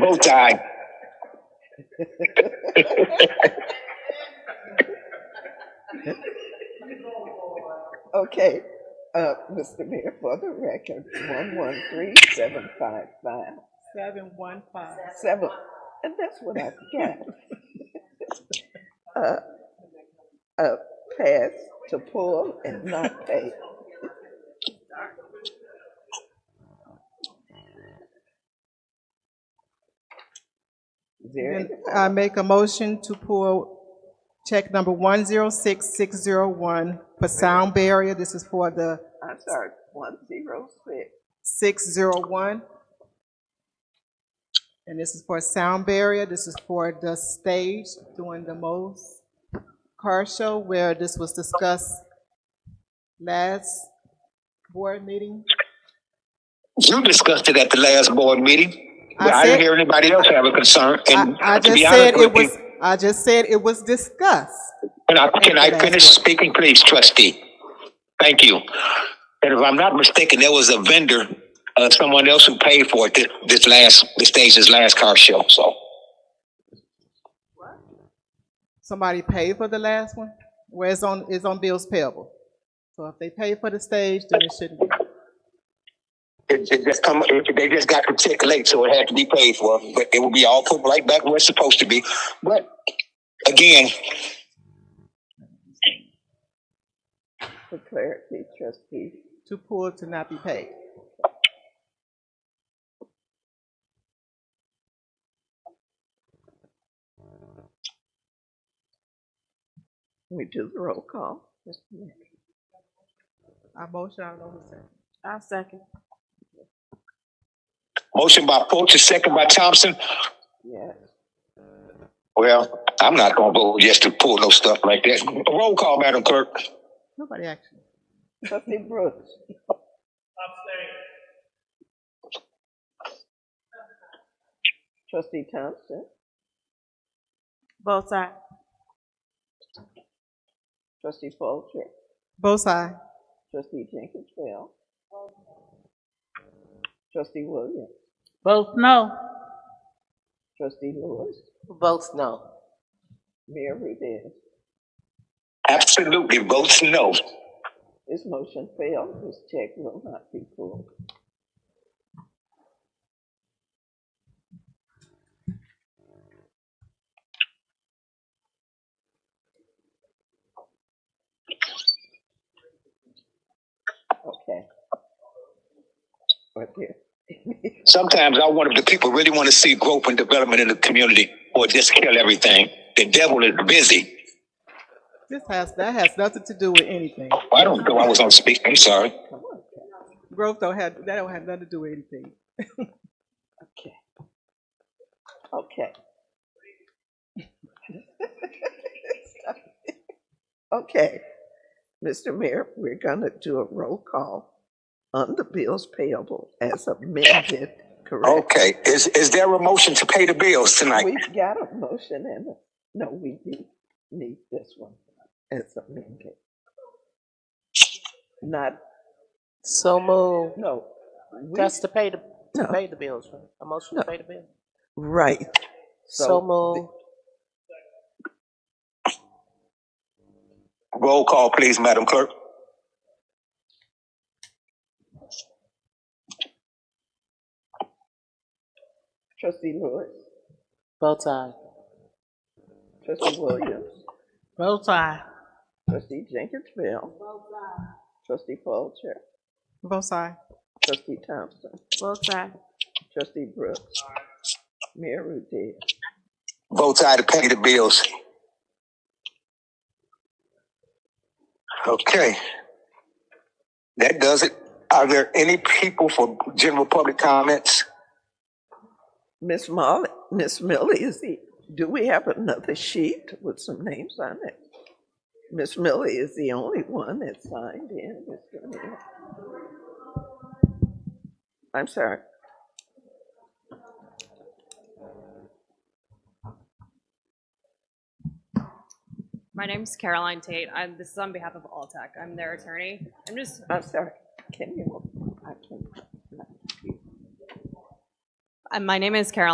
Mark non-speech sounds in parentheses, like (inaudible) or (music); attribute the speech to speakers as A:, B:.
A: Bow tie.
B: Okay, uh, Mr. Mayor, for the record, one one three seven five five seven, and that's what I got. Uh, uh, pass to pull and not pay. Is there
C: Then uh,
B: anyone?
C: I make a motion to pull check number 106601 for sound barrier. This is for the
B: I'm sorry, one zero six.
C: 601, and this is for sound barrier. This is for the stage during the Mo's car show where this was discussed last board meeting.
A: You discussed it at the last board meeting,
C: I
A: but I didn't
C: said,
A: hear anybody else have a concern.
C: I,
A: And
C: I
A: to
C: just
A: be honest
C: said it
A: with you,
C: was, I just said it was discussed
A: can I,
C: at
A: can
C: the
A: I
C: last
A: finish
C: board.
A: speaking, please, trustee? Thank you. And if I'm not mistaken, there was a vendor, uh, someone else who paid for it, this, this last, this stage's last car show, so.
C: Somebody paid for the last one, where it's on, it's on bills payable. So if they pay for the stage, then it shouldn't be.
A: It, it just come, it, they just got the check late, so it had to be paid for, but it will be all put right back where it's supposed to be. But again,
B: For clarity, trustee,
C: Too poor to not be paid.
B: we do the roll call. Mr. Mayor.
C: I motion, I don't know who said.
A: motion by Fulton, second by Thompson.
B: Yes,
A: Well, I'm not gonna vote yes to pull no stuff like that. Roll call, Madam Clerk.
C: Nobody actually.
B: trustee Brooks, trustee Thompson,
D: Both sides.
B: trustee Fulcher,
C: Both sides.
B: trustee Jenkins, well, trustee Williams.
D: Both no.
B: Trustee Lewis,
D: Both no.
B: Mayor Rudis.
A: Absolutely votes no.
B: This motion failed. This check will not be pulled. Okay. Right there.
A: Sometimes I wonder if the people really want to see growth and development in the community or just kill everything. The devil is busy.
C: This has, that has nothing to do with anything.
A: I don't know. I was on speak. I'm sorry.
B: Come on, Cal.
C: Growth don't have, that don't have nothing to do with anything.
B: okay, okay. (laughs) Okay, Mr. Mayor, we're gonna do a roll call on the bills payable as amended, correct?
A: Okay. Is is there a motion to pay the bills tonight?
B: We've got a motion and, a- no, we do need this one as amended, not,
D: So move.
B: no, we,
D: That's to pay the, to
B: no,
D: pay the bills, right? A motion
B: no,
D: to pay the bill.
B: right.
D: So
B: So
D: move.
A: Roll call, please, Madam Clerk.
B: trustee Lewis,
D: Both sides.
B: trustee Williams,
D: Both sides.
B: Trustee Jenkinsville. Trustee Folger.
C: Both sides.
B: Trustee Thompson.
D: Both sides.
B: Trustee Brooks. Mayor Ruthie.
A: Votes aye to pay the bills. Okay. That does it. Are there any people for general public comments?
B: Miss Molly, Miss Millie, is the, do we have another sheet with some names on it? Miss Millie is the only one that signed in. Mr. Mayor. I'm sorry.
E: My name's Caroline Tate. I'm, this is on behalf of Alltech. I'm their attorney. I'm just,
B: I'm sorry. Can you, I can't.
E: uh, my name is Caroline.